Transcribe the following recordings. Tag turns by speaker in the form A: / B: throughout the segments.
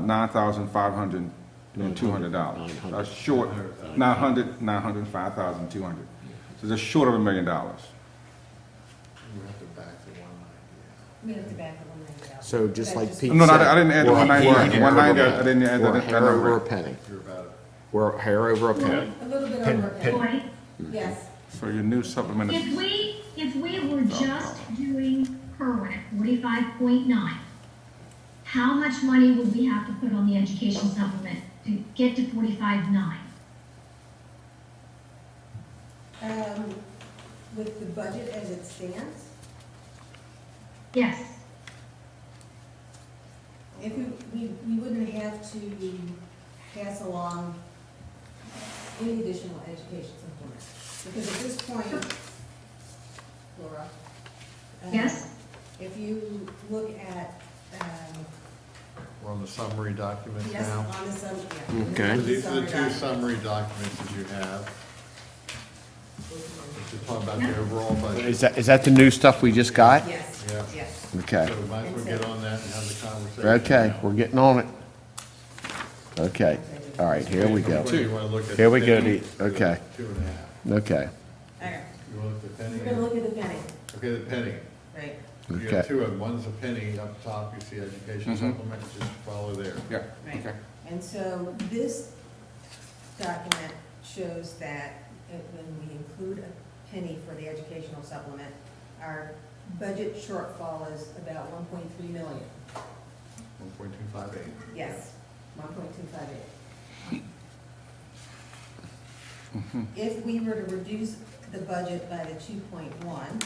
A: nine thousand five hundred and two hundred dollars. That's short,
B: uh,
A: nine hundred, nine hundred and five thousand two hundred. So that's short of a million dollars.
C: We have to back the one ninety
D: We have to back the one ninety out.
B: So just
D: That's
B: like Pete said.
A: No, no, I I didn't add the
B: we're-
A: one ninety,
B: we're a hair
A: one ninety,
B: over a
A: I didn't add
B: penny.
A: that,
B: We're
A: that
B: a hair over a
A: number.
B: penny.
C: out. You're about it.
B: We're a hair over a penny.
D: A little bit over a penny. Yes,
A: So your new supplement
E: If
A: is,
E: we, if we were just doing current forty-five point nine, how much money would we have to put on the education supplement to get to forty-five nine?
D: um, with the budget as it stands,
E: Yes,
D: if we, we, we wouldn't have to pass along any additional education supplement. Because at this point, Laura. um,
E: Yes?
D: If you look at, um,
C: We're on the summary document
D: yes,
C: now.
D: on the sub, yeah.
B: Okay.
C: These are the
D: Summary doc-
C: two summary documents that you have. If you're talking about the overall budget,
B: Is that, is that the new stuff we just got?
D: Yes,
C: Yeah.
D: yes.
B: Okay,
C: so might as well get on that and have the conversation.
B: okay,
C: now.
B: we're getting on it. Okay, all right, here we go.
C: Which one you wanna look at?
B: Here we go,
C: Penny?
B: the- okay.
C: Two and a half.
B: Okay,
D: All right,
C: You want the penny?
D: we're gonna look at the penny,
C: Okay, the penny.
D: right?
C: You
B: Okay. Mm-hmm.
C: have two of them. One's a penny up top, you see education supplement, just follow there.
A: yeah,
D: Right.
A: okay.
D: And so this document shows that it- when we include a penny for the educational supplement, our budget shortfall is about one point three million.
C: One point two five eight.
D: Yes, one point two five eight. If we were to reduce the budget by the two point one,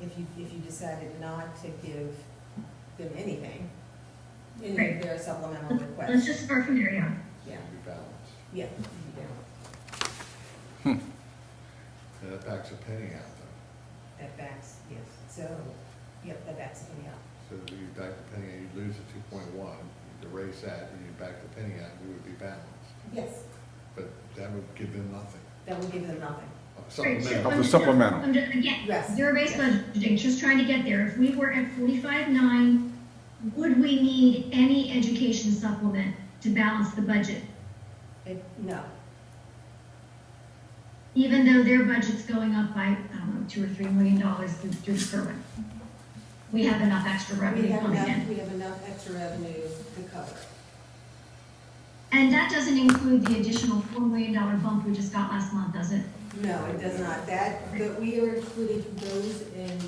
D: if you, if you decided not to give them anything, any of their supplemental
E: let's
D: requests,
E: just start from there, yeah.
D: yeah,
C: Be balanced.
D: yeah, you do.
C: And that backs a penny out though.
D: That backs, yes, so, yep, that backs me up.
C: So if you back the penny out, you lose the two point one, you erase that, and you back the penny out, we would be balanced.
D: Yes,
C: But that would give them nothing.
D: that will give them nothing.
E: Right, so
C: Supplemental.
A: Of
E: I'm
A: the
E: just-
A: supplemental.
E: I'm just- Again,
D: Yes.
E: zero-based budgeting, just trying to get there. If we were at forty-five nine, would we need any education supplement to balance the budget?
D: It, no,
E: Even though their budget's going up by, I don't know, two or three million dollars through through Kerwin. We have enough extra
D: we
E: revenue
D: have
E: coming in.
D: enough, we have enough extra revenue to cover. it.
E: And that doesn't include the additional four million dollar bump we just got last month, does it?
D: No, it does not, that, but we are including those in,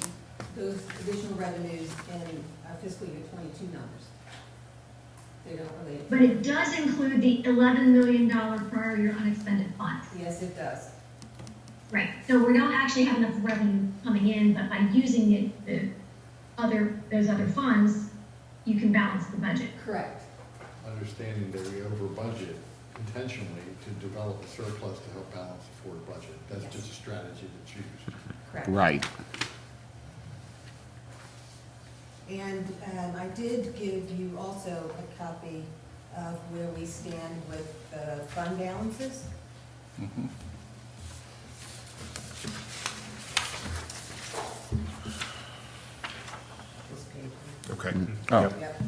D: those additional revenues in our fiscal year twenty-two numbers. They don't
E: But
D: relate,
E: it does include the eleven million dollar prior year unexpended funds.
D: yes, it does,
E: Right, so we don't actually have enough revenue coming in, but by using it, the other, those other funds, you can balance the budget.
D: correct,
C: Understanding that we over budget intentionally to develop a surplus to help balance the forward budget. That's
D: Yes.
C: just a strategy to choose.
D: correct.
B: right.
D: And um, I did give you also a copy of where we stand with the fund balances. This page.
F: Okay.
B: Oh,
D: Yep.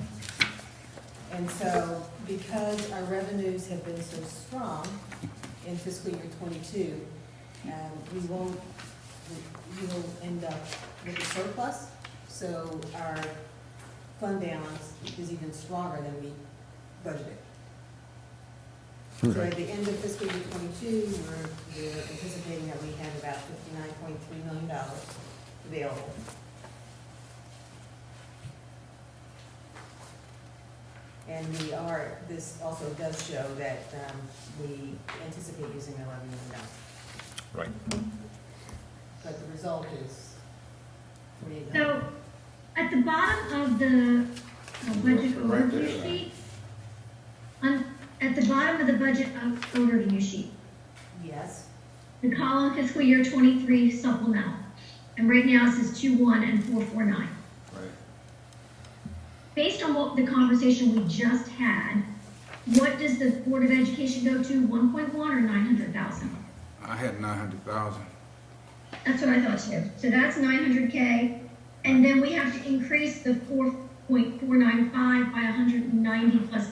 D: And so, because our revenues have been so strong in fiscal year twenty-two, um, we won't, we- we will end up with a surplus, so our fund balance is even stronger than we budgeted. So at the end of fiscal year twenty-two, we're, we're anticipating that we have about fifty-nine point three million dollars available. And we are, this also does show that um, we anticipate using the eleven million dollars,
F: Right.
D: but the result is forty-eight million.
E: So, at the bottom of the uh, budget
C: Right there.
E: overview sheet, on, at the bottom of the budget o- overview sheet,
D: Yes,
E: the column fiscal year twenty-three supplemental, and right now it says two-one and four-four-nine.
C: Right.
E: Based on what the conversation we just had, what does the Board of Education go to, one point one or nine hundred thousand?
A: I had nine hundred thousand.
E: That's what I thought too. So that's nine hundred K. And then we have to increase the four, point four nine five by hundred and ninety plus